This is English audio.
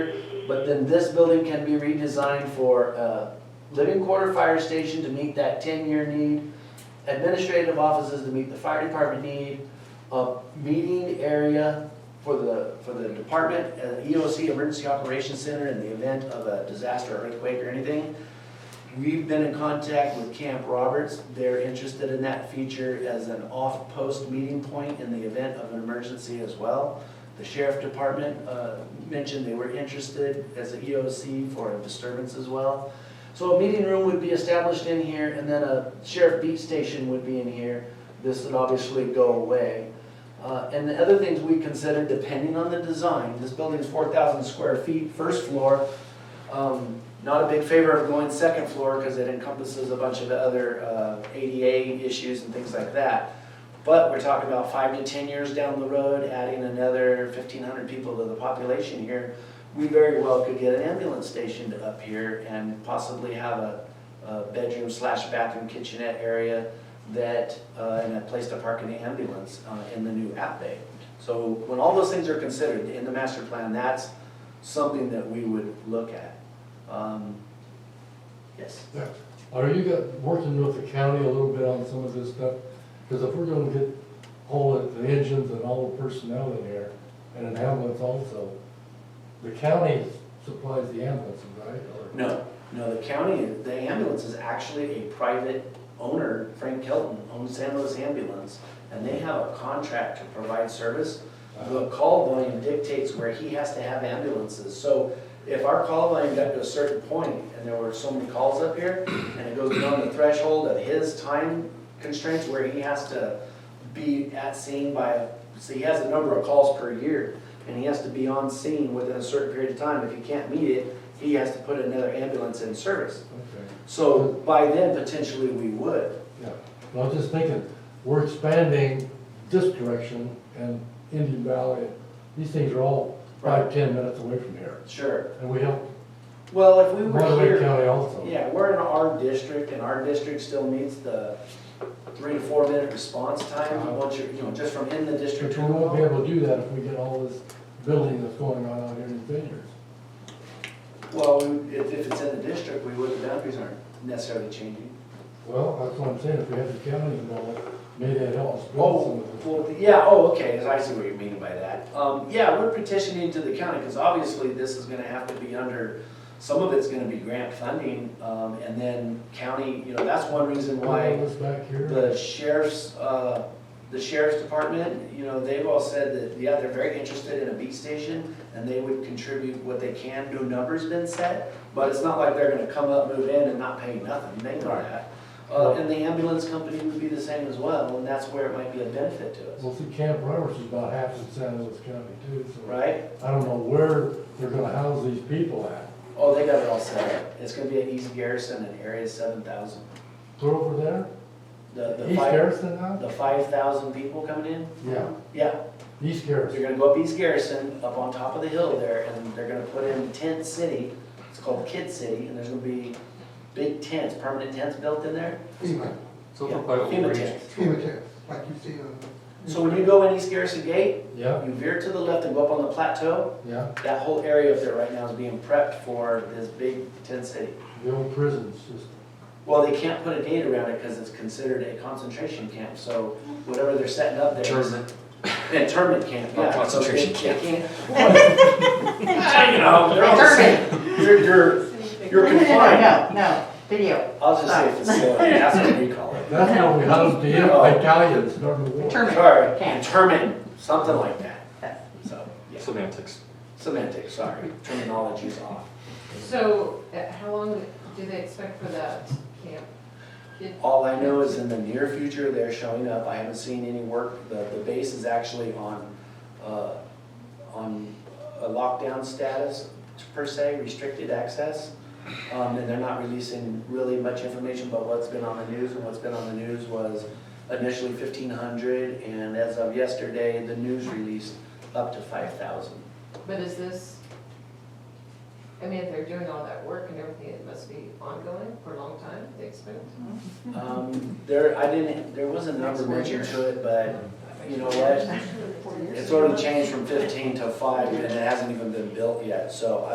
But then this building can be redesigned for a living quarter fire station to meet that ten-year need, administrative offices to meet the fire department need, a meeting area for the, for the department, an EOC Emergency Operations Center in the event of a disaster, or earthquake or anything. We've been in contact with Camp Roberts. They're interested in that feature as an off-post meeting point in the event of an emergency as well. The sheriff department uh, mentioned they were interested as an EOC for a disturbance as well. So a meeting room would be established in here, and then a sheriff beat station would be in here. This would obviously go away. Uh, And the other things we considered, depending on the design, this building's 4,000 square feet, first floor. Um, Not a big favor of going second floor because it encompasses a bunch of the other uh, ADA issues and things like that. But we're talking about five to 10 years down the road, adding another 1,500 people to the population here. We very well could get an ambulance stationed up here and possibly have a a bedroom slash bathroom kitchenette area that, uh, and a place to park an ambulance uh, in the new app bay. So when all those things are considered in the master plan, that's something that we would look at. Um, Yes. Are you got, working with the county a little bit on some of this stuff? Because if we're gonna get all of the engines and all the personnel in here, and an ambulance also, the county supplies the ambulances, right? Or- No, no, the county, the ambulance is actually a private owner, Frank Kelton owns San Luis Ambulance, and they have a contract to provide service. The call volume dictates where he has to have ambulances, so if our call volume got to a certain point, and there were so many calls up here, and it goes beyond the threshold of his time constraints where he has to be at scene by, so he has a number of calls per year, and he has to be on scene within a certain period of time, if he can't meet it, he has to put another ambulance in service. Okay, So by then, potentially, we would. yeah. Well, I was just thinking, we're expanding this direction and Indian Valley, these things are all five, ten minutes away from here. Sure. And we have Well, if we were Monterey here, County also. yeah, we're in our district, and our district still meets the three to four minute response time, once you're, you know, just from in the district. Uh-huh. But to we the won't be call. able to do that if we get all this building that's going on out here in Vineyards. Well, we- if, if it's in the district, we would, the boundaries aren't necessarily changing. Well, that's what I'm saying, if we had the county involved, maybe that helps. Oh, well, yeah, oh, okay, I see what you're meaning by that. Um, yeah, we're petitioning to the county, because obviously this is gonna have to be under, some of it's gonna be grant funding, um, and then county, you know, that's one reason Why why was back here? the sheriff's, uh, the sheriff's department, you know, they've all said that, yeah, they're very interested in a beat station, and they would contribute what they can, no number's been set, but it's not like they're gonna come up, move in, and not pay nothing, they know that. Uh, and the ambulance company would be the same as well, and that's where it might be a benefit to us. Well, see, Camp Roberts is about half in San Luis County too, so Right? I don't know where they're gonna house these people at. Oh, they got it all set up. It's gonna be at East Garrison and Area seven thousand. They're over there, The, the East five, Garrison now? the five thousand people coming in? Yeah, Yeah, East they're Garrison. gonna go up East Garrison, up on top of the hill there, and they're gonna put in tent city. It's called Kid City, and there's gonna be big tents, permanent tents built in there. FEMA, So Yeah, for by FEMA overreach, tents. FEMA test, like you uh, see on. So when you go in East Garrison Gate, Yeah, you veer to the left and go up on the plateau, yeah, that whole area up there right now is being prepped for this big tent city. the old prisons, just, Well, they can't put a date around it because it's considered a concentration camp, so whatever they're setting up there. is- Internment camp, Not yeah. concentration So they- they can't- You know, they're all the same. You're, you're, you're confined. No, no, video, I'll just say facility, that's what we call it. that's how we housed the Oh. Italians during the war. Term- Sorry, Camp. internment, something like that. So, yeah, semantics. semantics, sorry, terminology's off. So, uh, how long do they expect for that camp? All I know is in the near future, they're showing up. I haven't seen any work. The, the base is actually on, uh, on a lockdown status per se, restricted access. Um, and they're not releasing really much information about what's been on the news. And what's been on the news was initially fifteen hundred and as of yesterday, the news released up to five thousand. But is this, I mean, if they're doing all that work and everything, it must be ongoing for a long time, they expect? Um, there, I didn't, there was a number mentioned to it, but you know what? four years. It's already changed from fifteen to five, and it hasn't even been built yet, so